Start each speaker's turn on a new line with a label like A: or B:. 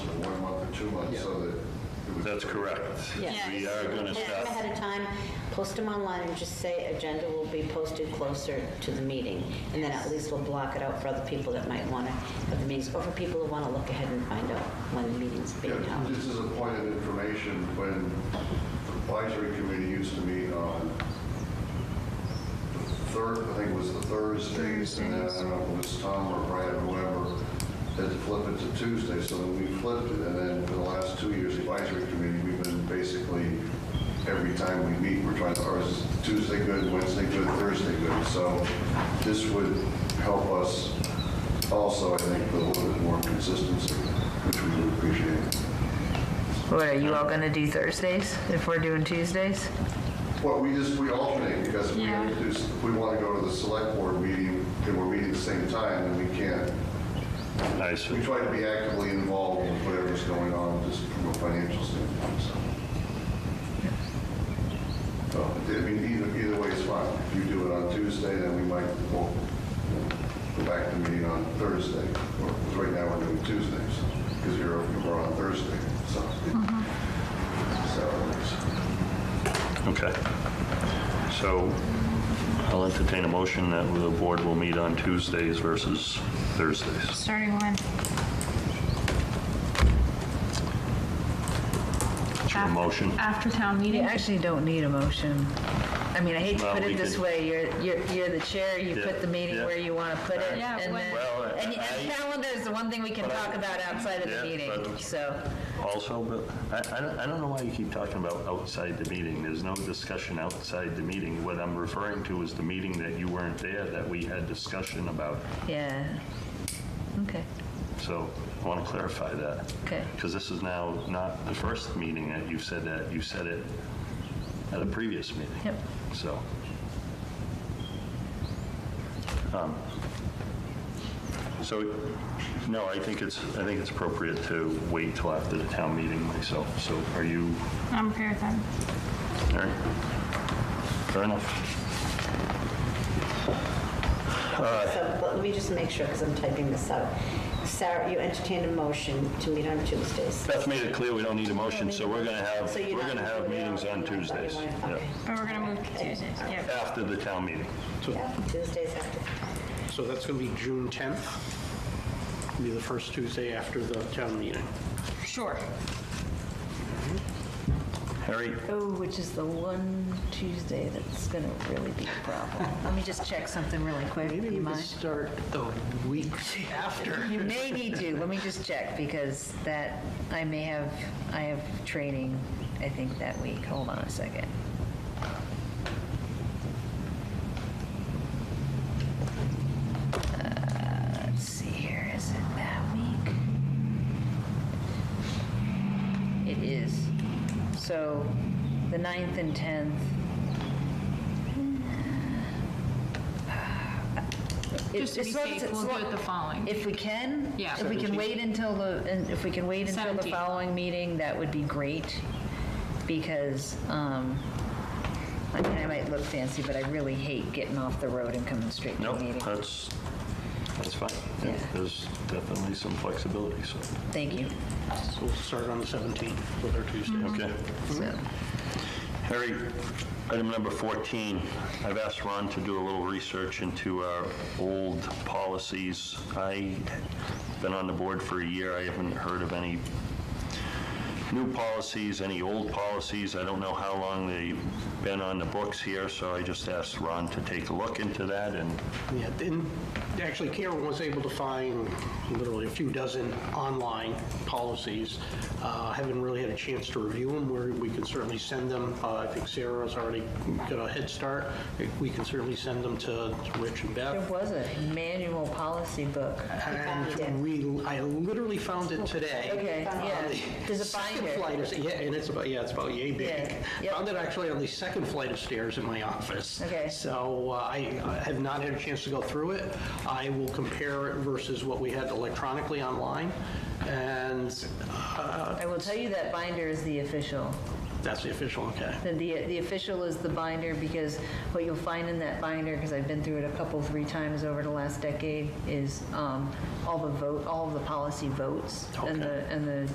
A: two months so that. it was-
B: That's correct.
C: Yes.
B: We are going to
C: Plan them
B: start,
C: ahead of time, post them online, and just say agenda will be posted closer to the meeting. And then at least we'll block it out for other people that might want to have the meetings, or for people who want to look ahead and find out when the meeting's being
A: Yeah,
C: held.
A: This is a point of information, when the advisory committee used to meet on the third, I think it was the Thursdays, and then I don't know if it was Tom or Brad, or whoever, had to flip it to Tuesday, so then we flipped it, and then for the last two years, advisory committee, we've been basically, every time we meet, we're trying to, or is Tuesday good, Wednesday good, Thursday good, so this would help us also, I think, with a little bit more consistency, which we would appreciate.
D: What, are you all gonna do Thursdays if we're doing Tuesdays?
A: Well, we just, we alternate because we
D: Yeah.
A: introduce, if we want to go to the select board meeting and we're meeting at the same time and we can't.
B: nice.
A: We try to be actively involved with whatever's going on, just from a financial standpoint, so. So, I mean, either, either way is fine. If you do it on Tuesday, then we might, we'll go back to the meeting on Thursday. Or, 'cause right now we're doing Tuesdays, because you're, we're on Thursday, so. So, it's-
B: Okay. So I'll entertain a motion that the board will meet on Tuesdays versus Thursdays.
E: Starting when?
B: It's your motion.
E: After town
D: You
E: meeting?
D: actually don't need a motion. I mean, I hate to
B: Well,
D: put
B: we
D: it this
B: could-
D: way, you're, you're, you're the chair, you
B: Yeah,
D: put the meeting
B: yeah.
D: where you wanna put it,
E: Yeah,
D: and
E: when-
D: then,
B: Well,
D: and and
B: I-
D: calendar is the one thing we can
B: But I-
D: talk about outside of the
B: Yeah,
D: meeting,
B: but-
D: so.
B: Also, but I- I, don't- I don't know why you keep talking about outside the meeting. There's no discussion outside the meeting. What I'm referring to is the meeting that you weren't there that we had discussion about.
D: Yeah. Okay,
B: So I want to clarify that.
D: Okay.
B: Because this is now not the first meeting that you've said that. You said it at a previous meeting.
D: Yep.
B: So. um, So, no, I think it's, I think it's appropriate to wait till after the town meeting myself. So are you,
E: I'm okay with that.
B: all right? Fair enough.
C: So but let me just make sure, because I'm typing this out. Sarah, you entertained a motion to meet on Tuesdays.
B: Beth made it clear we don't need a motion, so we're going to have,
C: So
B: we're
C: you're not
B: going to have
C: including all
B: meetings
C: of
B: on
C: them, I thought you
B: Tuesdays.
C: wanted-
B: Yeah.
C: okay.
E: But we're gonna move to Tuesdays, yeah.
B: After the town meeting.
C: Yeah, Tuesdays after.
F: So that's going to be June 10th, be the first Tuesday after the town meeting.
E: Sure.
B: Harry,
D: oh, which is the one Tuesday that's gonna really be a problem. Let me just check something really quick,
F: Maybe
D: you
F: we could
D: mind?
F: start the week after.
D: You may need to, let me just check, because that, I may have, I have training, I think, that week. Hold on a second. Uh, Let's see here, is it that week? It is. So, the 9th and 10th.
E: Just to be
D: As long as
E: safe,
D: it's
E: we'll do
D: long-
E: it the following.
D: If we can.
E: Yeah.
D: If we can wait until the, and if we can wait until the
E: 17th.
D: following meeting, that would be great, because, um, I mean, I might look fancy, but I really hate getting off the road and coming straight to
B: No,
D: a meeting.
B: that's, that's fine.
D: Yeah.
B: There's definitely some flexibility, so,
D: Thank you.
F: So we'll start on the 17th with our Tuesday.
B: okay.
D: So,
B: Harry, item number 14, I've asked Ron to do a little research into our old policies. I've been on the board for a year, I haven't heard of any new policies, any old policies. I don't know how long they've been on the books here, so I just asked Ron to take a look into that and
F: Yeah, then, actually Karen was able to find literally a few dozen online policies. Uh, Haven't really had a chance to review them, where we can certainly send them. Uh, I think Sarah's already got a head start. We can certainly send them to to Rich and Beth.
D: There was a manual policy book.
F: And we, I literally found it today.
D: Okay, yeah. There's a
F: Second
D: binder.
F: flight of- Yeah, and it's about, yeah, it's about yay big.
D: Yeah, yep.
F: Found it actually on the second flight of stairs in my office.
D: Okay.
F: So uh, I I have not had a chance to go through it. I will compare it versus what we had electronically online, and uh,
D: I will tell you that binder is the official.
F: that's the official, okay.
D: The, the, the official is the binder, because what you'll find in that binder, because I've been through it a couple, three times over the last decade, is um, all the vote, all of the policy votes and the, and the